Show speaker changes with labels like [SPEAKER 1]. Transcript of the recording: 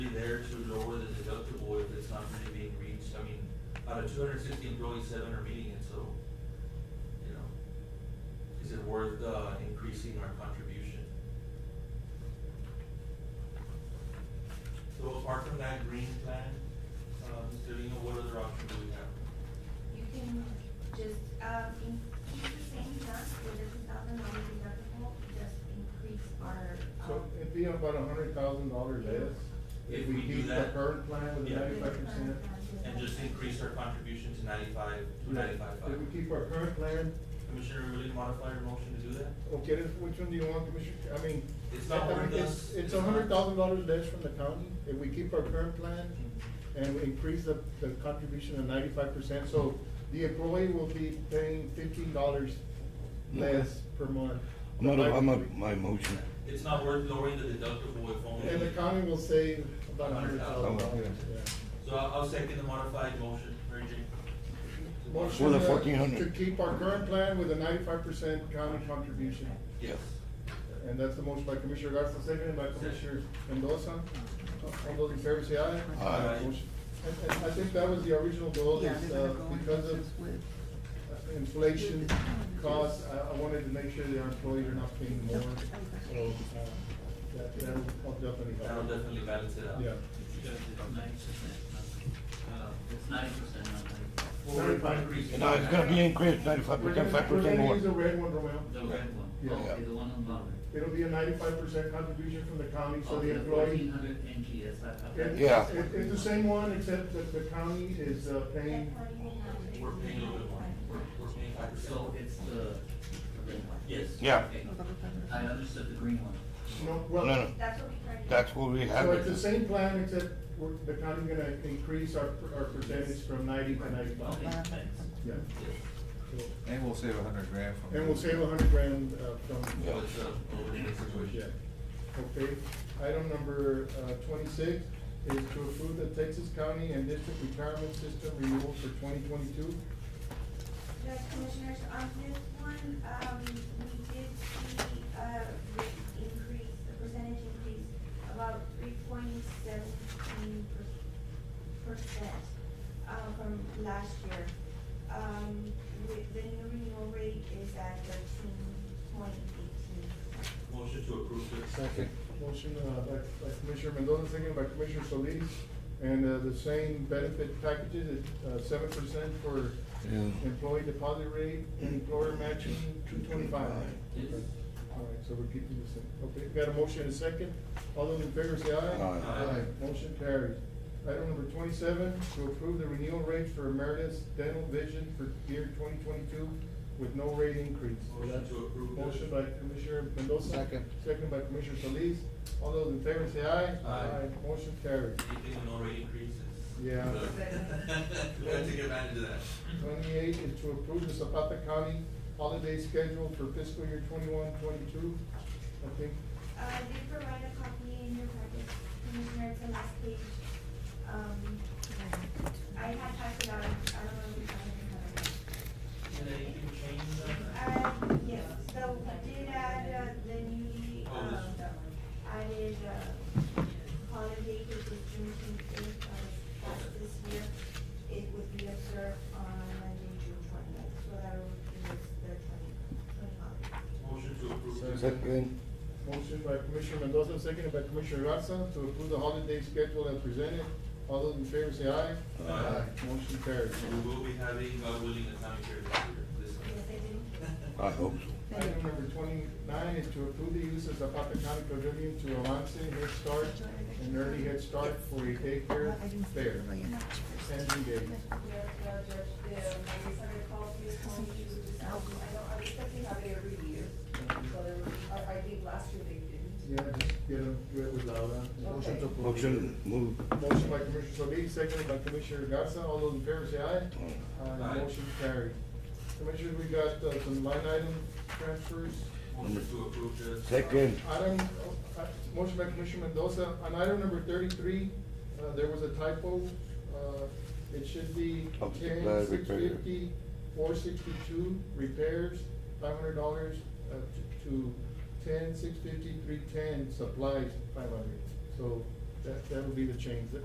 [SPEAKER 1] prepared to lower the deductible if it's not really being reached, I mean, out of two hundred and sixty employees, seven are meeting it, so, you know. Is it worth, uh, increasing our contribution? So apart from that green plan, uh, Mr. Lino, what other option do we have?
[SPEAKER 2] You can just, um, increase the same amount with the two thousand dollar deductible, just increase our,
[SPEAKER 3] So
[SPEAKER 2] um,
[SPEAKER 3] it'd be about a hundred thousand dollars less
[SPEAKER 1] If
[SPEAKER 3] if
[SPEAKER 1] we
[SPEAKER 3] we
[SPEAKER 1] do
[SPEAKER 3] keep the
[SPEAKER 1] that-
[SPEAKER 3] current plan with the
[SPEAKER 1] Yeah.
[SPEAKER 3] ninety-five percent.
[SPEAKER 1] And just increase our contribution to ninety-five, to ninety-five
[SPEAKER 3] If we
[SPEAKER 1] five.
[SPEAKER 3] keep our current plan,
[SPEAKER 1] Commissioner, will you modify your motion to do that?
[SPEAKER 3] okay, then which one do you want, Commissioner? I mean,
[SPEAKER 1] It's not one of
[SPEAKER 3] it's,
[SPEAKER 1] those-
[SPEAKER 3] it's
[SPEAKER 1] it's
[SPEAKER 3] a
[SPEAKER 1] not-
[SPEAKER 3] hundred thousand dollars less from the county if we keep our current plan and we increase the, the contribution to ninety-five percent. So the employee will be paying fifteen dollars less per month.
[SPEAKER 4] I'm not, I'm not, my motion.
[SPEAKER 1] It's not worth lowering the deductible if only.
[SPEAKER 3] And the county will save about a hundred thousand
[SPEAKER 4] Okay.
[SPEAKER 3] dollars, yeah.
[SPEAKER 1] So I'll, I'll second the modified motion, Mary Jane.
[SPEAKER 4] For
[SPEAKER 3] Motion
[SPEAKER 4] the
[SPEAKER 3] uh, to
[SPEAKER 4] 1400.
[SPEAKER 3] keep our current plan with a ninety-five percent county contribution.
[SPEAKER 1] Yes.
[SPEAKER 3] And that's the motion by Commissioner Garza, seconded by Commissioner Mendoza. All those in favor say aye.
[SPEAKER 4] Aye.
[SPEAKER 3] Motion- And, and I think that was the original goal,
[SPEAKER 5] Yeah,
[SPEAKER 3] is,
[SPEAKER 5] they're
[SPEAKER 3] uh,
[SPEAKER 5] gonna go in
[SPEAKER 3] because of
[SPEAKER 5] with-
[SPEAKER 3] uh, inflation costs, I, I wanted to make sure that our employees are not paying more. So, uh, that, that'll help definitely help.
[SPEAKER 1] That'll definitely balance it out.
[SPEAKER 3] Yeah.
[SPEAKER 6] Ninety percent, uh, it's ninety percent, not ninety.
[SPEAKER 1] Well, we're increasing
[SPEAKER 4] No, it's gonna be
[SPEAKER 1] that.
[SPEAKER 4] increased ninety-five
[SPEAKER 3] We're
[SPEAKER 4] percent,
[SPEAKER 3] gonna-
[SPEAKER 4] five percent
[SPEAKER 3] We're
[SPEAKER 4] more.
[SPEAKER 3] gonna use a red one, Romeo.
[SPEAKER 6] The red one,
[SPEAKER 3] Yeah.
[SPEAKER 6] okay, the one on bottom.
[SPEAKER 3] It'll be a ninety-five percent contribution from the county, so the
[SPEAKER 6] Fourteen
[SPEAKER 3] employee.
[SPEAKER 6] hundred NGS, I, I've got.
[SPEAKER 3] It-
[SPEAKER 4] Yeah.
[SPEAKER 3] it- It's the same one, except that the county is uh, paying,
[SPEAKER 1] We're paying a little bit more, we're, we're paying five percent.
[SPEAKER 6] So it's the, the red one, yes.
[SPEAKER 4] Yeah.
[SPEAKER 6] okay. I understood the green one.
[SPEAKER 3] no,
[SPEAKER 4] No,
[SPEAKER 3] well.
[SPEAKER 4] no,
[SPEAKER 2] That's what we tried to.
[SPEAKER 4] that's what we have.
[SPEAKER 3] So it's the same plan, except we're, the county's gonna increase our, our percentage from ninety to ninety-five.
[SPEAKER 6] Okay, thanks.
[SPEAKER 3] Yeah. So-
[SPEAKER 7] And we'll save a hundred grand from.
[SPEAKER 3] And we'll save a hundred grand, uh, from.
[SPEAKER 1] So it's a overhead
[SPEAKER 3] Yeah.
[SPEAKER 1] situation.
[SPEAKER 3] Okay, item number, uh, twenty-six is to approve the Texas County and District Retirement System renewal for twenty twenty-two.
[SPEAKER 2] Judge Commissioners, on this one, um, we did see a rate increase, a percentage increase, about three point seventeen percent, uh, from last year. Um, wi- the new renewal rate is at thirteen point eighteen.
[SPEAKER 1] Motion to approve this.
[SPEAKER 3] Second. Motion, uh, by, by Commissioner Mendoza, second by Commissioner Solis, and, uh, the same benefit packages, uh, seven percent for
[SPEAKER 4] Yeah.
[SPEAKER 3] employee deposit rate, and employer matching, two twenty-five.
[SPEAKER 1] Yes.
[SPEAKER 3] All right, so we're keeping the same, okay, we got a motion and a second, all those in favor say aye.
[SPEAKER 4] Aye.
[SPEAKER 1] Aye.
[SPEAKER 3] Motion carries. Item number twenty-seven, to approve the renewal rate for Emeritus Dental Vision for year twenty twenty-two with no rate increase. So
[SPEAKER 1] Motion
[SPEAKER 3] that's-
[SPEAKER 1] to approve.
[SPEAKER 3] Motion by Commissioner Mendoza.
[SPEAKER 4] Second.
[SPEAKER 3] Second by Commissioner Solis, all those in favor say aye.
[SPEAKER 1] Aye.
[SPEAKER 3] Motion carries.
[SPEAKER 1] Anything with no rate increases.
[SPEAKER 3] Yeah.
[SPEAKER 1] We have to take advantage of that.
[SPEAKER 3] Twenty-eight is to approve the Zapata County holiday schedule for fiscal year 21-22. I think,
[SPEAKER 2] Uh, I did provide a copy in your packet, Commissioner, it's the last page. Um, I had passed it out, I don't know if you have it.
[SPEAKER 1] Can anything change on
[SPEAKER 2] Uh, yes, so we did add uh, the newly,
[SPEAKER 1] Oh,
[SPEAKER 2] um,
[SPEAKER 1] this-
[SPEAKER 2] added, uh, holiday, which is Juneteenth, eighth, uh, that's this year. It would be observed on Monday, June twentieth, so that would be the twenty, twenty holiday.
[SPEAKER 1] that? Motion to approve this.
[SPEAKER 4] Second,
[SPEAKER 3] motion by Commissioner Mendoza, seconded by Commissioner Garza, to approve the holiday schedule as presented. All those in favor say aye.
[SPEAKER 1] Aye.
[SPEAKER 3] Motion carries.
[SPEAKER 1] We will be having, uh, willing and time here this year, this
[SPEAKER 2] Yes, I did.
[SPEAKER 4] I hope so.
[SPEAKER 3] Item number twenty-nine is to approve the use of Zapata County Pavilion to Avance Head Start and Early Head Start for a daycare fair. San
[SPEAKER 8] Yes,
[SPEAKER 3] Diego.
[SPEAKER 8] no, Judge, the, my recent call, please call me to this out. I don't, I expect they have it every year, so there were, I, I think last year they didn't.
[SPEAKER 3] Yeah, just get them, do it with Laura. Motion to approve.
[SPEAKER 4] Motion, move.
[SPEAKER 3] Motion by Commissioner Solis, seconded by Commissioner Garza, all those in favor say aye.
[SPEAKER 4] Aye.
[SPEAKER 3] Aye, motion carried. Commissioner, we got uh, some line item transfers.
[SPEAKER 1] Motion to approve this.
[SPEAKER 4] Second,
[SPEAKER 3] Item, uh, motion by Commissioner Mendoza, on item number thirty-three, uh, there was a typo, uh, it should be
[SPEAKER 4] Of the
[SPEAKER 3] ten,
[SPEAKER 4] plan
[SPEAKER 3] six
[SPEAKER 4] repair.
[SPEAKER 3] fifty, four sixty-two, repairs, five hundred dollars, uh, to- to ten, six fifty, three ten, supplies, five hundred. So That, that'll be the change.